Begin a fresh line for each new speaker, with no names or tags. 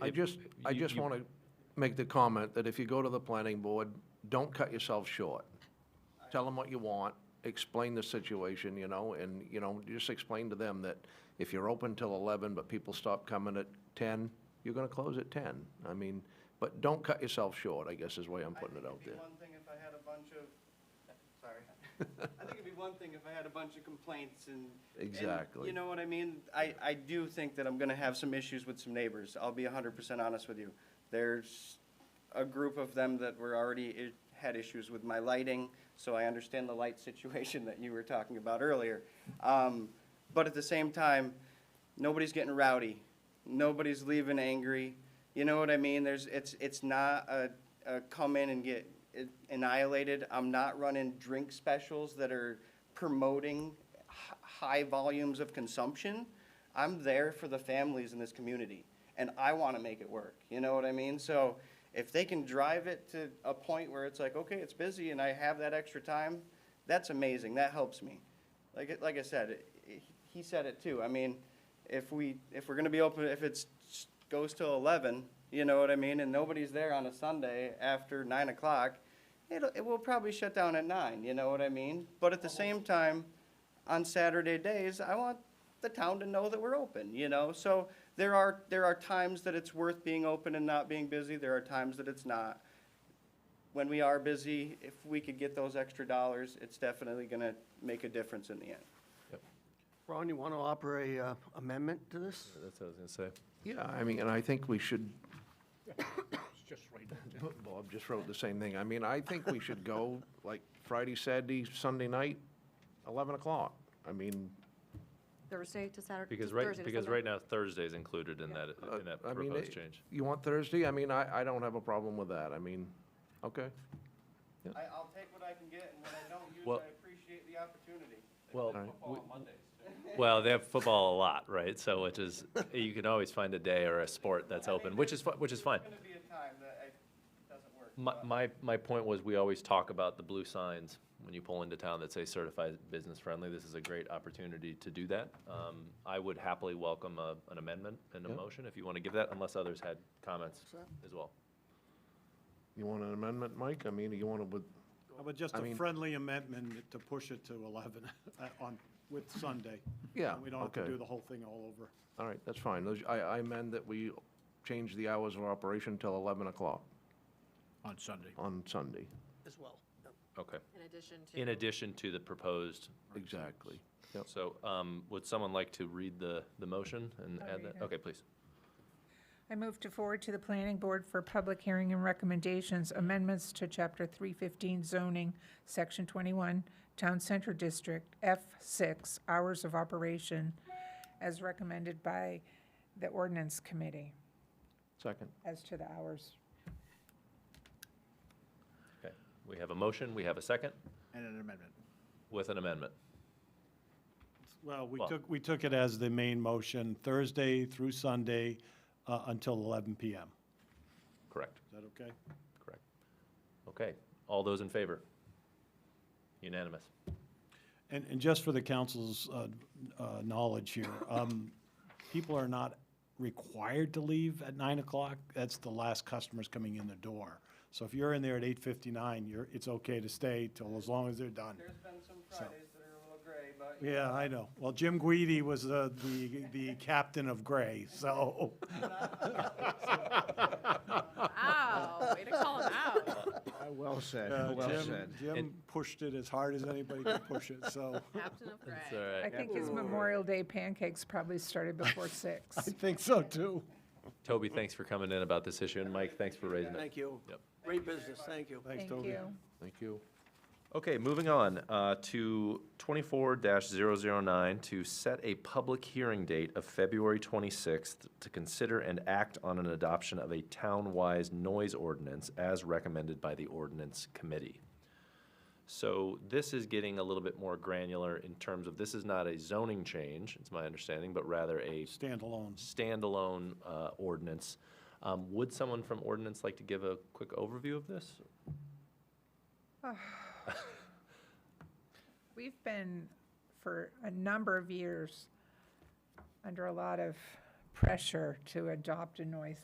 I
If-
just, I
you-
just
you-
want to make the comment that if you go to the planning board, don't cut yourself short. Tell them what you want, explain the situation, you know, and, you know, just explain to them that if you're open till 11, but people stop coming at 10, you're going to close at 10. I mean, but don't cut yourself short, I guess is the way I'm putting it out there.
I think it'd be one thing if I had a bunch of, sorry. I think it'd be one thing if I had a bunch of complaints and. and
Exactly.
You know what I mean? I, I do think that I'm gonna have some issues with some neighbors. I'll be hundred percent honest with you. There's a group of them that were already, i- had issues with my lighting, so I understand the light situation that you were talking about earlier. Um, but at the same time, nobody's getting rowdy. Nobody's leaving angry. You know what I mean? There's, it's, it's not a, a come in and get annihilated. I'm not running drink specials that are promoting h- high volumes of consumption. I'm there for the families in this community, and I want to make it work. You know what I mean? So if they can drive it to a point where it's like, okay, it's busy, and I have that extra time, that's amazing. That helps me. Like, it- like I said, it- it- he said it too. I mean, if we, if we're gonna be open, if it's, goes till eleven, you know what I mean, and nobody's there on a Sunday after nine o'clock, it'll, it will probably shut down at nine, you know what I mean? But at the same time, on Saturday days, I want the town to know that we're open, you know? So there are, there are times that it's worth being open and not being busy, there are times that it's not. When we are busy, if we could get those extra dollars, it's definitely gonna make a difference in the end.
Ron, you want to offer a uh, amendment to this?
That's what I was gonna say.
Yeah, I mean, and I think we should. Bob just wrote the same thing. I mean, I think we should go, like, Friday, Saturday, Sunday night, 11 o'clock. I mean,
Thursday to Saturday, to
Because
Thursday to
right,
Sunday.
because right now Thursday's included in that,
uh,
in that
I mean,
proposed
it-
change.
You want Thursday? I mean, I, I don't have a problem with that. I mean, okay.
I, I'll take what I can get, and what I don't use,
Well-
I appreciate the opportunity.
Well,
All right.
well, they have football a lot, right? So which is, you can always find a day or a sport that's open, which is, fi- which is fine.
There's gonna be a time that I, it doesn't work.
My,
but-
my, my point was, we always talk about the blue signs when you pull into town that say certified business friendly. This is a great opportunity to do that. Um, I would happily welcome a, an amendment and a
Yeah.
motion if you want to give that, unless others had comments as well.
You want an amendment, Mike? I mean, you want to, with,
How about just
I
a
mean-
friendly amendment to push it to 11 uh, on, with Sunday?
Yeah,
And We don't have to
okay.
do the whole thing all over.
all right, that's fine. Those- I, I amend that we change the hours of operation till 11 o'clock
on Sunday.
on Sunday.
As well.
Okay.
In addition to.
In addition to the proposed,
Exactly. Yep.
so, um, would someone like to read the, the motion and
I'll
add
read
that?
it.
Okay, please.
I move to forward to the planning board for public hearing and recommendations amendments to chapter three fifteen zoning, section twenty-one, town center district, F six, hours of operation, as recommended by the ordinance committee
Second.
as to the hours.
Okay. We have a motion, we have a second
And an amendment.
with an amendment.
Well, we
Well-
took, we took it as the main motion, Thursday through Sunday uh, until 11 PM.
Correct,
Is that okay?
correct. Okay, all those in favor? Unanimous.
And, and just for the council's uh, uh, knowledge here, um, people are not required to leave at nine o'clock. That's the last customers coming in the door. So if you're in there at eight fifty-nine, you're, it's okay to stay till as long as they're done.
There's been some Fridays that are a little gray, but. you
Yeah, I know. Well, Jim Guidi was the, the, the captain of gray, so.
Wow, way to call him out.
Well said,
uh,
well
Jim-
said.
Jim pushed it as hard as anybody could push it, so
Captain of Gray.
It's all right.
I think his Memorial Day pancakes probably started before six.
I think so too.
Toby, thanks for coming in about this issue, and Mike, thanks for raising it.
Thank you.
Yep.
Great business, thank you.
Thanks,
Thank
Toby.
you.
Thank you.
Okay, moving on uh, to 24-009, to set a public hearing date of February 26th to consider and act on an adoption of a town-wise noise ordinance as recommended by the ordinance committee. So this is getting a little bit more granular in terms of, this is not a zoning change, it's my understanding, but rather a
Standalone.
standalone uh, ordinance. Um, Would someone from ordinance like to give a quick overview of this?
We've been, for a number of years, under a lot of pressure to adopt a noise